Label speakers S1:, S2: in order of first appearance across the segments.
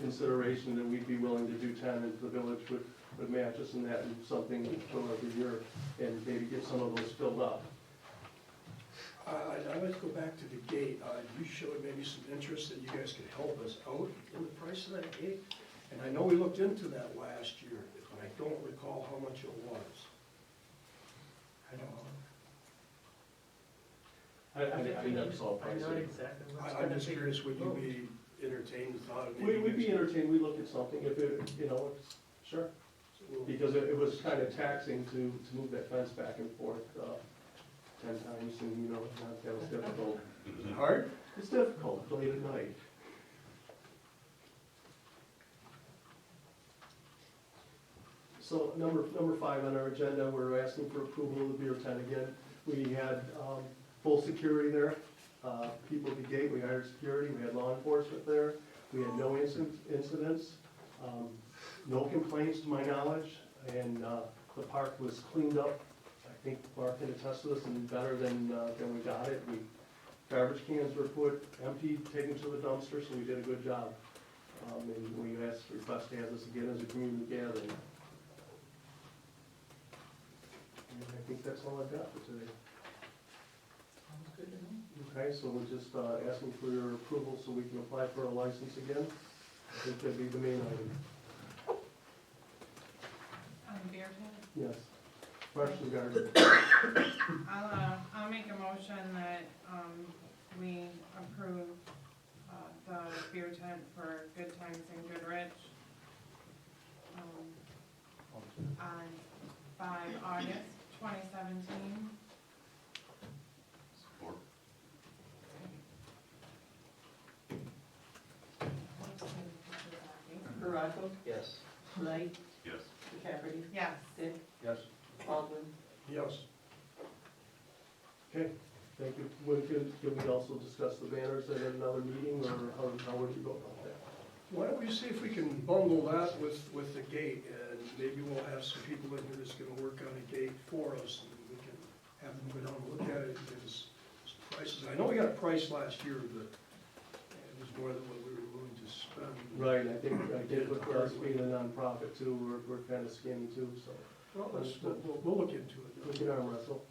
S1: consideration that we'd be willing to do ten if the village would, would match us in that and something for every year and maybe get some of those filled up.
S2: I, I- I would go back to the gate. Uh, You showed maybe some interest that you guys could help us out in the price of that gate. And I know we looked into that last year, but I don't recall how much it was. I don't
S1: I,
S2: know.
S1: I think I think that's all
S3: I
S1: pricey.
S3: know exactly what's
S2: I-
S3: gonna
S2: I'm
S3: be.
S2: just curious, would you be entertained with how?
S1: We, we'd be entertained, we'd look at something if it, you know, it's, sure, because it, it was kind of taxing to, to move that fence back and forth, uh, ten times and, you know, that- that was difficult.
S2: Hard?
S1: It's difficult, late at night. So number, number five on our agenda, we're asking for approval of the beer tent again. We had um, full security there, uh, people at the gate, we hired security, we had law enforcement there, we had no incident- incidents, um, no complaints to my knowledge, and uh, the park was cleaned up. I think Mark can attest to this, and better than, uh, than we got it. We Garbage cans were put, emptied, taken to the dumpster, so we did a good job. Um, and we asked, request to have this again as a community gathering. And I think that's all I've got for today.
S3: Sounds good to me.
S1: Okay, so we're just, uh, asking for your approval so we can apply for a license again. I think that'd be the main item,
S4: On the beer tent?
S1: yes. Freshly garden,
S4: I'll, uh, I'll make a motion that, um, we approve, uh, the beer tent for Good Times and Goodrich. Um, on, by August twenty seventeen.
S5: Support.
S6: Baraco,
S3: Yes.
S6: Light,
S5: Yes.
S6: Haverty,
S4: Yes,
S6: Dick,
S1: yes.
S6: Baldwin.
S2: Yes.
S1: Okay, thank you. Would, can, can we also discuss the banners at another meeting, or how, how would you go about that?
S2: Why don't we see if we can bundle that with, with the gate, and maybe we'll have some people in here that's gonna work on a gate for us, and we can have them go down and look at it, and give us some prices. I know we got a price last year, but it was more than what we were willing to spend.
S1: Right, I think, I did with us being a nonprofit too, we're, we're kind of skinny too, so
S2: Well, let's, we'll, we'll- we'll look into
S1: we
S2: it.
S1: can arm wrestle.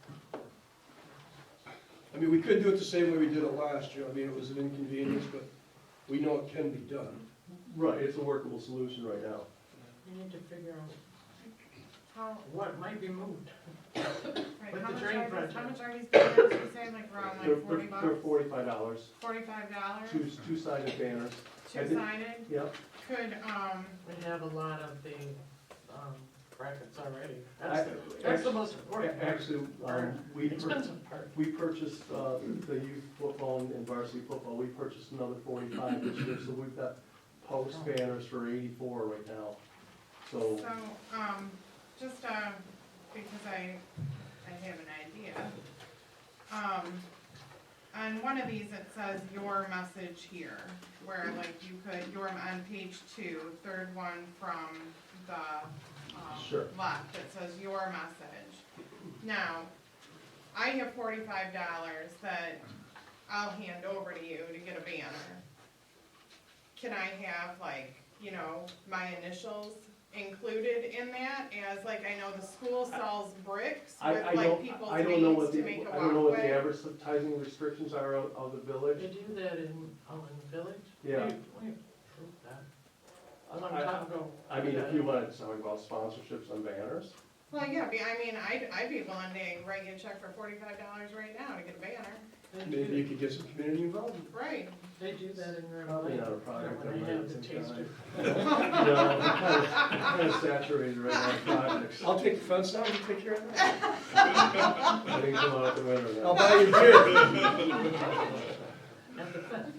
S2: I mean, we could do it the same way we did it last year, I mean, it was an inconvenience, but we know it can be done.
S1: Right, it's a workable solution right now.
S6: You need to figure out
S4: how,
S6: what might be moved.
S4: right,
S6: With
S4: how
S6: the
S4: much
S6: drain
S4: are these, how
S6: project.
S4: much are these banners, you say like we're on
S1: They're-
S4: like forty bucks?
S1: They're forty-five dollars,
S4: Forty-five dollars,
S1: two, two-sided banners, I think-
S4: two-sided,
S1: yep.
S4: could, um,
S6: We have a lot of the, um, brackets already.
S1: I-
S6: That's, the- that's the most
S1: A-
S6: important part.
S1: Actually, um, we, pur-
S6: Expensive part.
S1: we purchased, uh, the youth football and varsity football, we purchased another forty-five this year, so we've got post banners for eighty-four right now. So,
S4: So, um, just, uh, because I, I have an idea. Um, on one of these, it says your message here, where like you could, you're on page two, third one from the,
S1: Sure.
S4: um, left, it says your message. Now, I have forty-five dollars that I'll hand over to you to get a banner. Can I have like, you know, my initials included in that as, like, I know the school sells bricks
S1: I,
S4: with
S1: I
S4: like
S1: don't,
S4: people's
S1: I don't know
S4: names
S1: what
S4: to
S1: the,
S4: make a walkway.
S1: I don't know what the advertising restrictions are of, of the village.
S6: They do that in, oh, in the village?
S1: Yeah.
S6: We we approved that. A long
S1: I-
S6: time ago.
S1: I mean, if you wanted to talk about sponsorships on banners,
S4: Well, yeah, be- I mean, I'd, I'd be willing to write you a check for forty-five dollars right now to get a banner.
S6: They
S2: Maybe you
S6: do,
S2: could get some community involvement.
S4: Right.
S6: they do that in Grand
S1: probably
S6: Lake.
S1: not a product.
S6: When
S1: that
S6: they have the
S1: might-
S6: taster.
S1: You know, I'm kind of- I'm kind of saturated right now, products.
S2: I'll take the fence down, you take care of that.
S1: I didn't come out the window.
S2: I'll buy you beer.
S6: At the fence.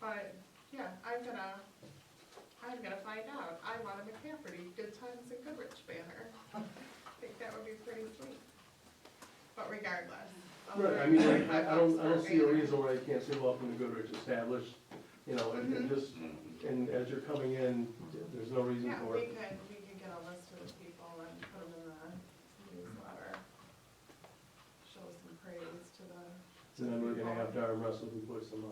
S4: But, yeah, I'm gonna, I'm gonna find out. I want a McCafferty Good Times and Goodrich banner. I think that would be pretty sweet. But regardless. I'll
S1: Right, I
S4: write
S1: mean, like,
S4: $45
S1: I, I don't, I
S4: for a
S1: don't see a
S4: banner.
S1: reason why you can't say welcome to Goodrich established, you know, and, and just, and as you're coming in, there's no reason
S4: Yeah,
S1: for
S4: we
S1: it.
S4: could, we could get a list of the people and put them in the newsletter. Show some praise to the
S1: And then we're gonna have to arm wrestle who puts them up.